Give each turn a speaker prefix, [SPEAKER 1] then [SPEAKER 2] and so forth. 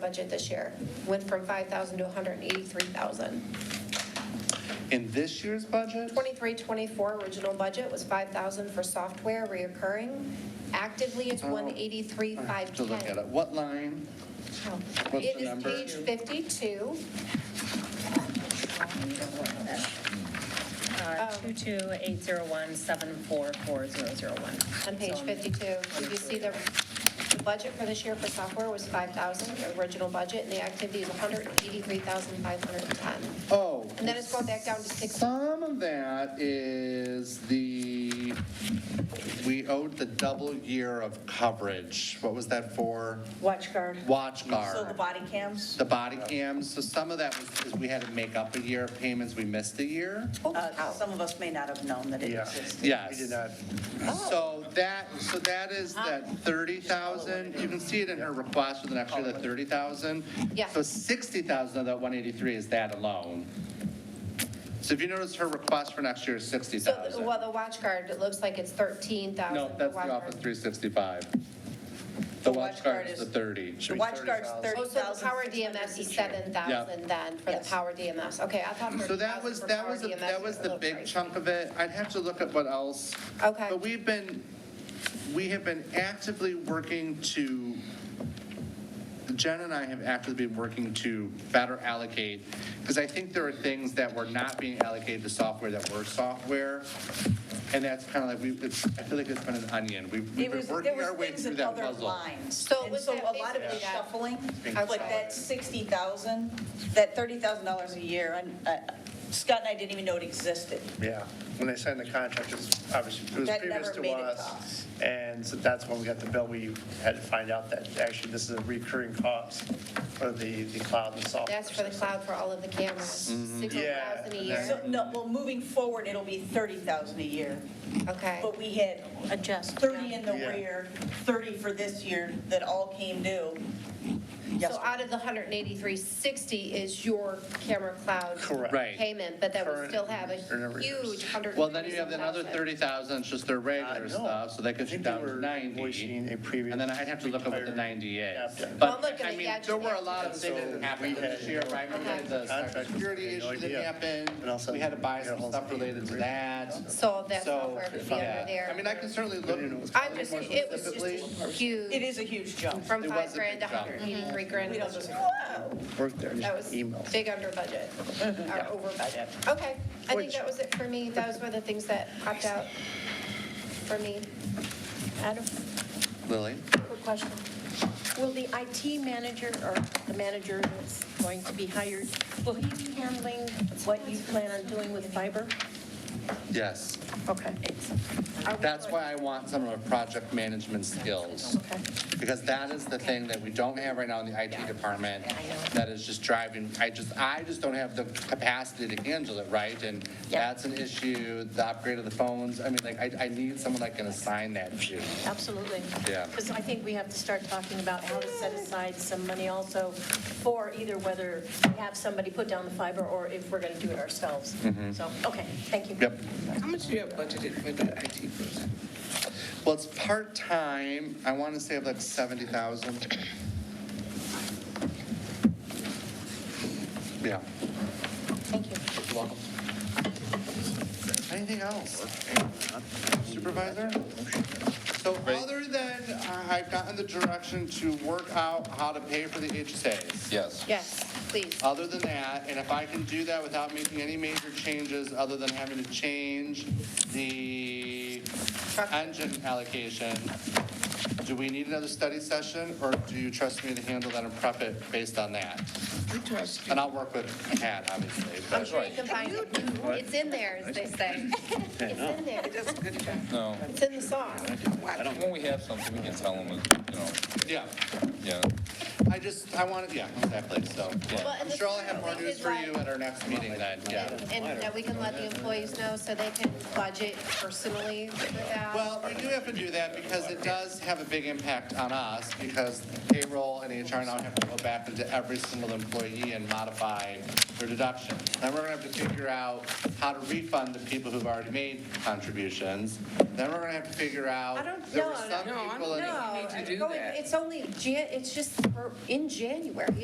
[SPEAKER 1] budget this year. Went from 5,000 to 183,000.
[SPEAKER 2] In this year's budget?
[SPEAKER 1] 23, 24 original budget was 5,000 for software reoccurring. Actively, it's
[SPEAKER 2] Oh. I have To look at
[SPEAKER 1] 183,510.
[SPEAKER 2] it. What line?
[SPEAKER 1] Oh.
[SPEAKER 2] the
[SPEAKER 1] It is
[SPEAKER 2] number?
[SPEAKER 1] page 52.
[SPEAKER 3] Uh, 22801744001.
[SPEAKER 1] On page
[SPEAKER 3] So,
[SPEAKER 1] 52, did you see the, the budget for this year for software was 5,000, the original budget, and the activity is 183,510.
[SPEAKER 2] Oh.
[SPEAKER 1] And then it's going back down to six-
[SPEAKER 2] Some of that is the, we owed the double year of coverage. What was that for?
[SPEAKER 4] Watch guard.
[SPEAKER 2] Watch
[SPEAKER 4] So the
[SPEAKER 2] guard.
[SPEAKER 4] body cams?
[SPEAKER 2] The body cams. So some of that was, because we had to make up a year of payments. We missed a year.
[SPEAKER 4] Uh, Some of us may not have known that it existed.
[SPEAKER 2] Yes. We did not. So that, so that is that 30,000, you can see it in her request with an extra 30,000.
[SPEAKER 1] Yeah.
[SPEAKER 2] So 60,000 of that 183 is that alone. So if you notice, her request for next year is
[SPEAKER 1] So, the-
[SPEAKER 2] 60,000.
[SPEAKER 1] well, the watch guard, it looks like it's 13,000.
[SPEAKER 2] No, that's
[SPEAKER 1] watch
[SPEAKER 2] the
[SPEAKER 1] guard.
[SPEAKER 2] Office 365. The watch guard is the 30.
[SPEAKER 4] The watch guard's
[SPEAKER 1] Oh, so the
[SPEAKER 4] 30,000.
[SPEAKER 1] power DMS is 7,000 then for the
[SPEAKER 4] Yes.
[SPEAKER 1] power DMS. Okay, I
[SPEAKER 4] Um,
[SPEAKER 1] thought
[SPEAKER 2] So
[SPEAKER 1] 30,000
[SPEAKER 2] that was,
[SPEAKER 1] for
[SPEAKER 2] that
[SPEAKER 1] power
[SPEAKER 2] was, the-
[SPEAKER 1] DMS
[SPEAKER 2] that was
[SPEAKER 1] a
[SPEAKER 2] the
[SPEAKER 1] little
[SPEAKER 2] big
[SPEAKER 1] crazy.
[SPEAKER 2] chunk of it. I'd have to look at what else.
[SPEAKER 1] Okay.
[SPEAKER 2] But we've been, we have been actively working to, Jen and I have actively been working to better allocate, because I think there are things that were not being allocated to software that were software. And that's kind of like, we, it's, I feel like it's been an onion. We've
[SPEAKER 4] It
[SPEAKER 2] we've
[SPEAKER 4] was,
[SPEAKER 2] been
[SPEAKER 4] there
[SPEAKER 2] working our
[SPEAKER 4] was
[SPEAKER 2] way
[SPEAKER 4] things
[SPEAKER 2] through
[SPEAKER 4] in
[SPEAKER 2] that
[SPEAKER 4] other
[SPEAKER 2] puzzle.
[SPEAKER 4] lines.
[SPEAKER 1] So
[SPEAKER 4] And
[SPEAKER 1] was
[SPEAKER 4] so
[SPEAKER 1] that
[SPEAKER 4] a lot of
[SPEAKER 1] basically
[SPEAKER 4] it
[SPEAKER 1] that-
[SPEAKER 4] shuffling,
[SPEAKER 2] Being
[SPEAKER 4] like that 60,000, that $30,000 a year, and uh, Scott and I didn't even know it existed.
[SPEAKER 5] Yeah, when they signed the contract, it was obviously, it was
[SPEAKER 4] That
[SPEAKER 5] previous
[SPEAKER 4] never
[SPEAKER 5] to
[SPEAKER 4] made it to
[SPEAKER 5] us.
[SPEAKER 4] us.
[SPEAKER 5] And so that's when we got the bill, we had to find out that actually this is a recurring cost for the, the cloud and software.
[SPEAKER 1] That's for the cloud for all of the cameras,
[SPEAKER 2] Mm-hmm.
[SPEAKER 1] 600,000 a
[SPEAKER 5] Yeah.
[SPEAKER 1] year.
[SPEAKER 4] So, no, well, moving forward, it'll be 30,000 a year.
[SPEAKER 1] Okay,
[SPEAKER 4] But we had
[SPEAKER 3] Adjust.
[SPEAKER 4] 30 in the
[SPEAKER 5] Yeah.
[SPEAKER 4] rear, 30 for this year that all came due. Yes.
[SPEAKER 1] so out of the 183,60 is your camera cloud
[SPEAKER 5] Correct.
[SPEAKER 2] Right.
[SPEAKER 1] payment, but that would
[SPEAKER 5] Current
[SPEAKER 1] still have a
[SPEAKER 5] and every-
[SPEAKER 1] huge 100.
[SPEAKER 2] Well, then you have another 30,000, it's just their
[SPEAKER 5] I
[SPEAKER 2] regular
[SPEAKER 5] know.
[SPEAKER 2] stuff, so that gets
[SPEAKER 5] I
[SPEAKER 2] you
[SPEAKER 5] think they
[SPEAKER 2] down to
[SPEAKER 5] were
[SPEAKER 2] 90.
[SPEAKER 5] invoicing a previous
[SPEAKER 2] And then I'd have to look up what the
[SPEAKER 5] entire-
[SPEAKER 2] 90 is.
[SPEAKER 5] Yeah.
[SPEAKER 1] Well, I'm
[SPEAKER 2] But,
[SPEAKER 1] looking
[SPEAKER 2] I
[SPEAKER 1] at
[SPEAKER 2] mean,
[SPEAKER 1] the
[SPEAKER 2] there were a lot of
[SPEAKER 5] actual-
[SPEAKER 2] things that happened this year, right? We had the
[SPEAKER 5] Contract.
[SPEAKER 2] cybersecurity
[SPEAKER 5] No
[SPEAKER 2] issue that
[SPEAKER 5] idea. And all of a
[SPEAKER 2] happened,
[SPEAKER 5] sudden,
[SPEAKER 2] we had to buy some
[SPEAKER 5] you know,
[SPEAKER 2] stuff related to that.
[SPEAKER 1] So that's
[SPEAKER 2] So,
[SPEAKER 1] software could be under
[SPEAKER 2] yeah,
[SPEAKER 1] there.
[SPEAKER 2] I mean, I can certainly look.
[SPEAKER 1] I'm just, it was just
[SPEAKER 2] specifically.
[SPEAKER 1] a huge.
[SPEAKER 4] It is a huge jump.
[SPEAKER 1] From
[SPEAKER 2] It was
[SPEAKER 1] five
[SPEAKER 2] a
[SPEAKER 1] grand to
[SPEAKER 2] big jump.
[SPEAKER 1] 183 grand.
[SPEAKER 4] We don't just, whoa.
[SPEAKER 5] Work there,
[SPEAKER 1] That was big under budget, or over budget. Okay, I think that was it for me. Those were the things that popped out for me.
[SPEAKER 6] Adam,
[SPEAKER 2] Lily?
[SPEAKER 6] quick question. Will the IT manager or the manager that's going to be hired, will he be handling what you plan on doing with fiber?
[SPEAKER 2] Yes.
[SPEAKER 6] Okay. Are we
[SPEAKER 2] That's
[SPEAKER 6] going-
[SPEAKER 2] why I want some of our project management skills.
[SPEAKER 6] Okay.
[SPEAKER 2] Because that is the thing that we don't have right now in the IT department. That is just driving, I just, I just don't have the capacity to handle it, right? And that's an issue, the upgrade of the phones, I mean, like, I, I need someone that can assign that to.
[SPEAKER 6] Absolutely.
[SPEAKER 2] Yeah.
[SPEAKER 6] Because I think we have to start talking about how to set aside some money also for either whether we have somebody put down the fiber or if we're going to do it ourselves. So, okay, thank you.
[SPEAKER 2] Mm-hmm. Yep.
[SPEAKER 7] How much do you have budgeted for the IT person?
[SPEAKER 2] Well, it's part-time, I want to say like 70,000. Yeah.
[SPEAKER 6] Thank you.
[SPEAKER 2] Welcome. Anything else? Supervisor? So other than uh, I've gotten the direction to work out how to pay for the HSAs. Yes.
[SPEAKER 1] Yes, please.
[SPEAKER 2] Other than that, and if I can do that without making any major changes, other than having to change the engine allocation, do we need another study session, or do you trust me to handle that and prep it based on that?
[SPEAKER 7] We trust you.
[SPEAKER 2] And I'll work with Pat, obviously. but-
[SPEAKER 1] I'm sure you can find it. It's in there, as they say. It's in there.
[SPEAKER 7] That's good.
[SPEAKER 8] No,
[SPEAKER 1] It's in the song.
[SPEAKER 8] I don't, when we have something, we can tell them, you know,
[SPEAKER 2] Yeah,
[SPEAKER 8] yeah.
[SPEAKER 2] I just, I wanted, yeah, exactly, so. yeah.
[SPEAKER 1] Well, and
[SPEAKER 2] I'm
[SPEAKER 1] this
[SPEAKER 2] sure I'll
[SPEAKER 1] is
[SPEAKER 2] have more
[SPEAKER 1] something
[SPEAKER 2] news
[SPEAKER 1] is
[SPEAKER 2] for
[SPEAKER 1] like-
[SPEAKER 2] you at our next meeting then, yeah.
[SPEAKER 1] And that we can let the employees know so they can budget personally for that.
[SPEAKER 2] Well, we do have to do that because it does have a big big impact on us because payroll and HR now have to go back into every single employee and modify their deduction. Then we're gonna have to figure out how to refund the people who've already made contributions. Then we're gonna have to figure out.
[SPEAKER 1] I don't-
[SPEAKER 2] There were
[SPEAKER 1] no,
[SPEAKER 2] some
[SPEAKER 1] no,
[SPEAKER 7] no, I
[SPEAKER 2] people
[SPEAKER 7] don't
[SPEAKER 2] in-
[SPEAKER 7] think we need to do
[SPEAKER 1] No,
[SPEAKER 7] that.
[SPEAKER 1] it's only, Jan- it's just for- in January.